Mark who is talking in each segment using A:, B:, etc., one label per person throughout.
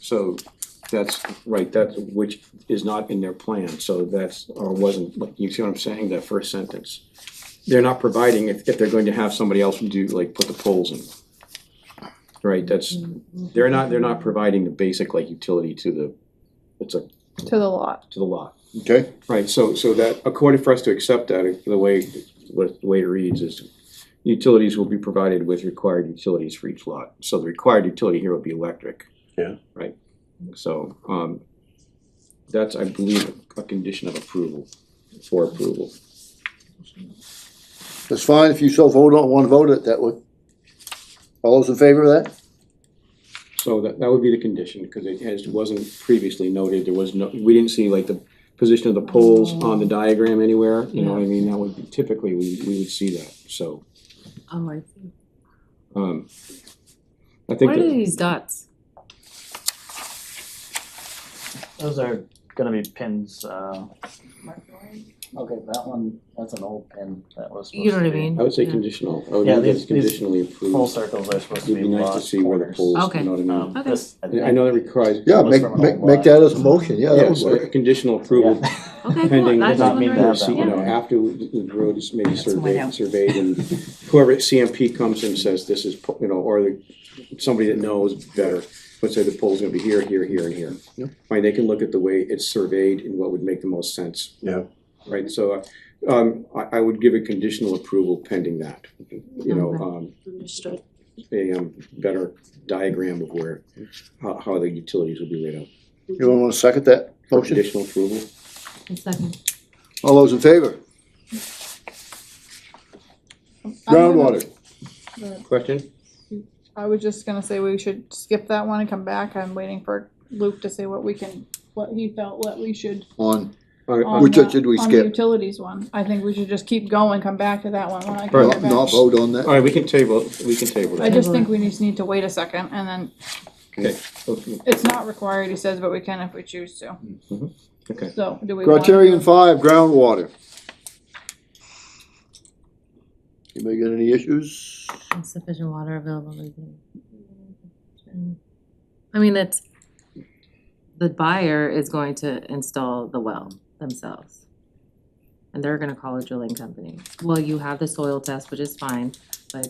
A: So that's right, that's which is not in their plan, so that's, or wasn't, like, you see what I'm saying, that first sentence. They're not providing if if they're going to have somebody else do, like, put the poles in. Right, that's, they're not, they're not providing the basic like utility to the, it's a,
B: to the lot.
A: to the lot.
C: Okay,
A: Right, so, so that, according for us to accept that, the way, what, the way it reads is, utilities will be provided with required utilities for each lot. So the required utility here would be electric.
C: Yeah.
A: Right, so, um, that's, I believe, a condition of approval, for approval.
C: that's fine, if you so vote on, wanna vote it that way. All those in favor of that?
A: So that, that would be the condition, because it has, wasn't previously noted, there was no, we didn't see like the position of the poles on the diagram anywhere, you know what I mean? That would, be- typically, we, we would see that, so,
D: Oh, I see.
A: um, I think
D: What are
A: that,
D: these dots?
E: Those are gonna be pins, uh. Okay, that one, that's an old pin that was supposed to be.
D: You know what I mean?
A: I would say
D: Yeah.
A: conditional, I would
E: Yeah,
A: make
E: these-
A: this conditionally
E: Full
A: approved.
E: circles are supposed to
A: It'd
E: be
A: be nice to
E: lost
A: see where the
E: corners.
A: poles,
D: Okay.
A: you know what I mean?
E: Um,
D: Okay.
E: this, I
A: I know that requires,
C: Yeah,
E: Was
C: make,
E: from an
C: make,
E: old
C: make
E: lot.
C: that as a motion, yeah, that
A: yeah,
C: would
A: so
C: work.
A: a conditional
E: Yeah.
A: approval
D: Okay,
A: pending,
D: cool. I
A: does
D: just
A: not mean
E: wondering.
A: that, so, you
D: wondered.
A: know,
E: Yeah.
A: after the road is maybe
D: That's what I know.
A: surveyed, surveyed and whoever at CMP comes and says this is, po- you know, or the, somebody that knows better, would say the pole's gonna be here, here, here, and here.
C: Yep.
A: Right, they can look at the way it's surveyed and what would make the most sense.
C: Yeah.
A: Right, so, uh, um, I, I would give a conditional approval pending that, you know, um,
D: Understood.
A: a, um, better diagram of where, how, how the utilities would be laid out.
C: You wanna second that motion?
A: Conditional approval?
D: A second.
C: All those in favor? Groundwater,
A: Question?
B: I was just gonna say we should skip that one and come back. I'm waiting for Luke to say what we can, what he felt, what we should.
C: on,
A: On-
B: on
D: Um,
A: on-
C: Which
B: the-
C: one should we
B: on the
C: skip?
B: Utilities one. I think we should just keep going, come back to that one when I can
A: Right.
B: get
C: not, not
B: back.
C: vote on that,
A: All right, we can table, we can table
B: I
A: that.
B: just think we just need to wait a second and then
A: Okay.
B: it's not required, he says, but we can if we choose to.
A: Mhm. Okay.
B: So do we? wanna
C: criterion
B: do-
C: five, groundwater. Anybody got any issues?
D: Insufficient water available. to the- I mean, that's, the buyer is going to install the well themselves. And they're gonna call a drilling company. Well, you have the soil test, which is fine, but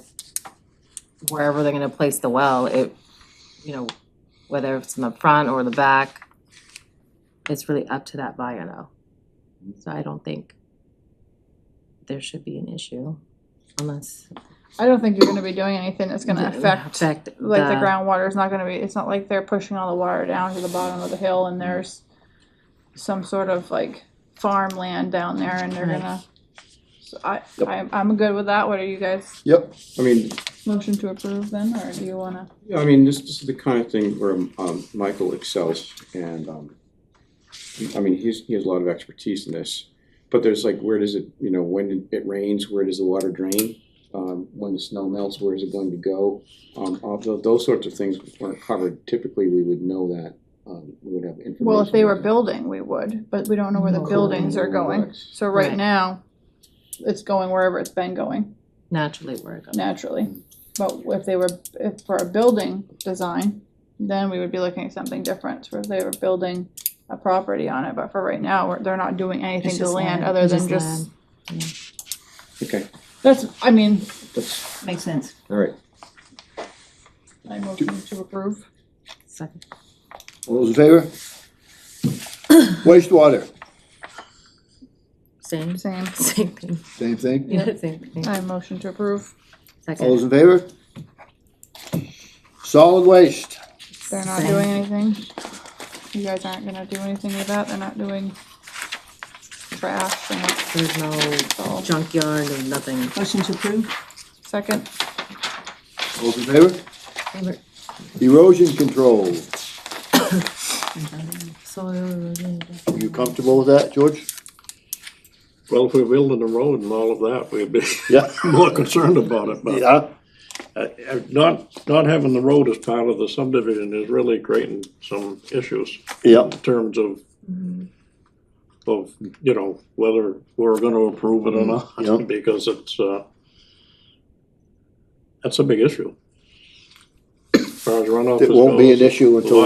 D: wherever they're gonna place the well, it, you know, whether it's in the front or the back, it's really up to that buyer though. So I don't think there should be an issue unless
B: I don't think you're gonna be doing anything that's gonna affect, like
D: affect
B: the groundwater is not gonna be, it's not like they're pushing all the water down to the bottom of the hill and there's some sort of like farmland down there and they're
D: Right.
B: gonna. So I, I, I'm good with that. What are you guys,
C: Yep,
A: I mean,
B: motion to approve then, or do you wanna?
A: Yeah, I mean, this, this is the kind of thing where, um, Michael excels and, um, I mean, he's, he has a lot of expertise in this. But there's like, where does it, you know, when it rains, where does the water drain? Um, when the snow melts, where is it going to go? Um, although those sorts of things weren't covered, typically we would know that, um, we would have information.
B: Well, if they were
A: about that.
B: building, we would, but we don't know where the
D: No.
B: buildings are going.
A: Correct.
B: So right
D: Right.
B: now, it's going wherever it's been going
D: naturally where it goes.
B: naturally. But if they were, if for a building design, then we would be looking at something different. For if they were building a property on it, but for right now, we're- they're not doing anything
D: It's
B: to
D: just
B: land
D: land.
B: other
D: It's
B: than
D: just
B: just,
A: Okay,
B: that's, I mean,
A: that's,
D: Makes sense.
A: all right.
B: I motion to approve.
D: Second.
C: all those in favor? Wastewater,
D: Same,
B: Same.
D: same thing.
C: same thing,
D: Yeah, same thing.
B: I motion to approve.
C: all those
D: Second.
C: in favor? Solid waste,
B: They're not
D: Same.
B: doing anything. You guys aren't gonna do anything with that. They're not doing trash. They're not
D: There's no
B: all.
D: junkyard or nothing.
F: Motion to approve?
B: Second,
C: all those in favor? Erosion control,
D: Soil.
C: you comfortable with that, George?
G: Well, if we're building a road and all of that, we'd be
C: Yeah.
G: more concerned about it, but
C: Yeah,
G: uh, not, not having the road as part of the subdivision is really creating some issues
C: yeah,
G: in terms of,
C: Mm-hmm.
G: of, you know, whether we're gonna approve it or
C: Yeah.
G: not, because it's, uh, that's a big issue. As far as runoff
C: it
G: is
C: won't be an
G: goes.
C: issue until